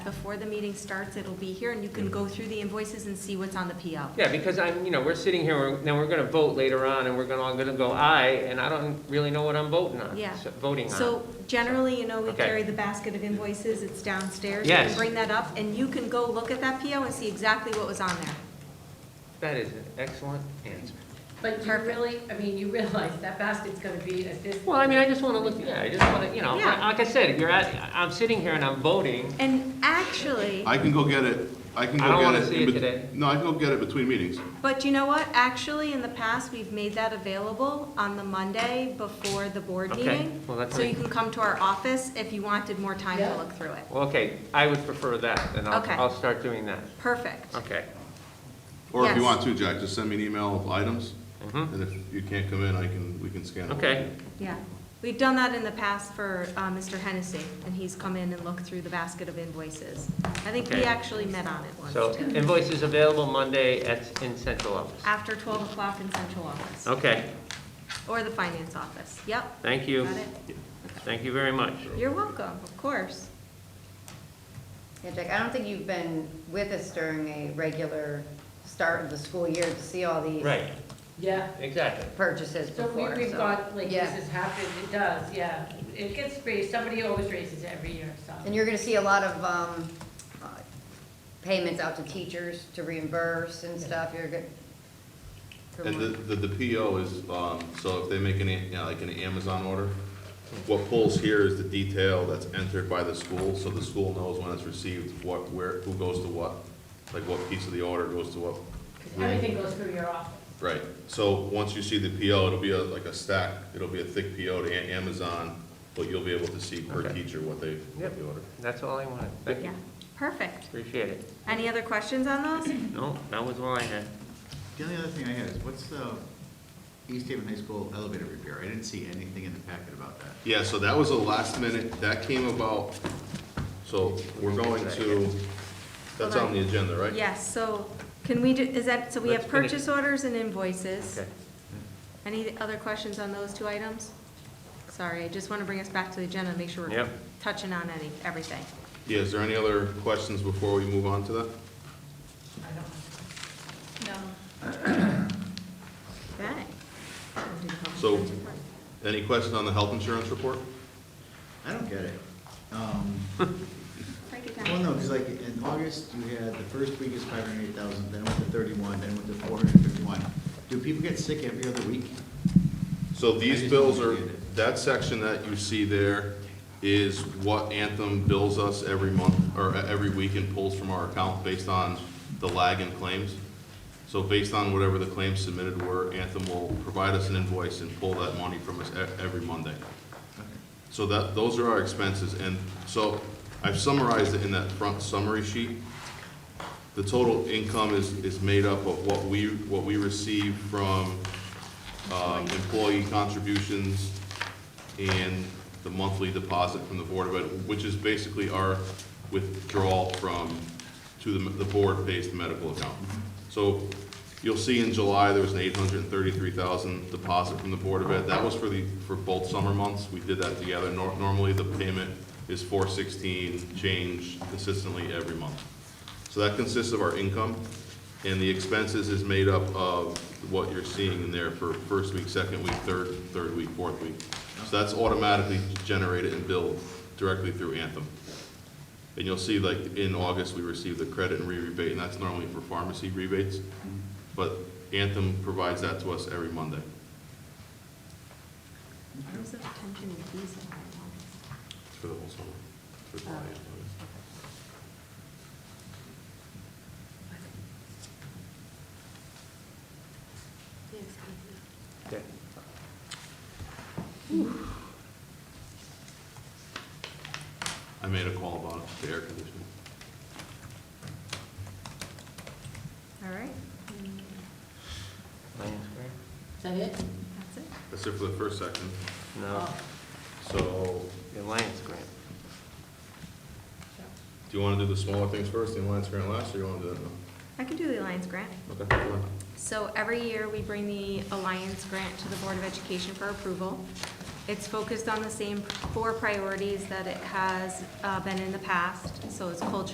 before the meeting starts, it'll be here, and you Mm. can go through the invoices and see what's on the PO. Yeah, because I'm, you know, we're sitting here, we're- then we're gonna vote later on, and we're gonna, all gonna go aye, and I don't really know what I'm voting on. Yeah. so- Voting on. So generally, you know, we Okay. carry the basket of invoices, it's downstairs. You can Yes. Bring that up, and you can go look at that PO and see exactly what was on there. That is an excellent answer. But you Perfect. really, I mean, you realize that basket's gonna be at this. Well, I mean, I just wanna look, yeah, I just wanna, you know, Yeah. like I said, you're at, I'm sitting here and I'm voting, And actually, I can go get it, I can go I get it. don't wanna see in it bet- today. No, I can go get it between meetings. but you know what? Actually, in the past, we've made that available on the Monday before the board Okay. meeting. Well, that's So you fine. can come to our office if you wanted more time to Yeah. look through it. Well, okay, I would prefer that, and I'll, Okay. I'll start doing that. Perfect. Okay. Or if you Yes. want to, Jack, just send me an email of items, and if you can't come in, I can, we can scan it. Mm-hmm. Okay. Yeah. We've done that in the past for uh, Mr. Hennessy, and he's come in and looked through the basket of invoices. I think we Okay. actually met on it once, So too. invoices available Monday at, in central office. After 12 o'clock in central office. Okay, Or the finance office, yep. thank you. Got it? Thank you very much. You're welcome, of course. Yeah, Jack, I don't think you've been with us during a regular start of the school year to see all these Right, Yeah, exactly. purchases so we, before, we've so. got, like, Yeah. this has happened, it does, yeah. It gets raised, somebody always raises it every year, so. And you're gonna see a lot of, um, uh, payments out to teachers to reimburse and stuff, you're good. And the, the, the PO is, um, so if they make any, you know, like an Amazon order, what pulls here is the detail that's entered by the school, so the school knows when it's received, what, where, who goes to what, like what piece of the order goes to what. 'Cause room. Everything goes through your office. Right, so once you see the PO, it'll be a- like a stack, it'll be a thick PO to A- Amazon, but you'll be able to see per Okay. teacher what they, Yep. what they ordered. That's all I wanted. Thank Yeah, you, perfect. appreciate it. Any other questions on those? No, that was all I had. The only other thing I had is, what's the East Haven High School elevator repair? I didn't see anything in the packet about that. Yeah, so that was a last minute, that came about, so we're going to, that's on the agenda, right? Yes, so can we do, is that, so we have Let's finish. purchase orders and invoices. Okay. Any other questions on those two items? Sorry, I just want to bring us back to the agenda and make sure we're Yep. touching on any, everything. Yeah, is there any other questions before we move on to that? Okay. So, any question on the health insurance report? I don't get it. Um, Break it Well, down. no, because like in August, you had the first week is five hundred eight thousand, then went to thirty-one, then went to four hundred fifty-one. Do people get sick every other week? So I these just bills don't are, get it. that section that you see there is what Anthem bills us every month, or e- every week and pulls from our account based on the lag in claims. So based on whatever the claims submitted were, Anthem will provide us an invoice and pull that money from us e- every Monday. So that, those are our expenses, and so I've summarized it in that front summary sheet. The total income is, is made up of what we, what we receive from um, employee contributions and the monthly deposit from the Board of Ed, which is basically our withdrawal from, to the, the board-based medical account. So you'll see in July, there was an eight hundred and thirty-three thousand deposit from the Board of Ed. That was for the, for both summer months. We did that together. Nor- Normally, the payment is four sixteen change consistently every month. So that consists of our income, and the expenses is made up of what you're seeing in there for first week, second week, third, third week, fourth week. So that's automatically generated and billed directly through Anthem. And you'll see, like, in August, we received the credit and re-rebate, and that's normally for pharmacy rebates, but Anthem provides that to us every Monday. Terms of attention and fees that I It's for the whole summer. for July and August. want. Okay. I made a call about it, the air conditioning. All right, Lions Is that it? that's it. That's it for the first section. Grant? No, Oh. So, the Lions Grant. do you want to do the smaller things first, the Alliance Grant last, or you want to do that now? I can do the Alliance grant. Okay, go ahead. So every year, we bring the Alliance grant to the Board of Education for approval. It's focused on the same four priorities that it has uh, been in the past. So it's culture.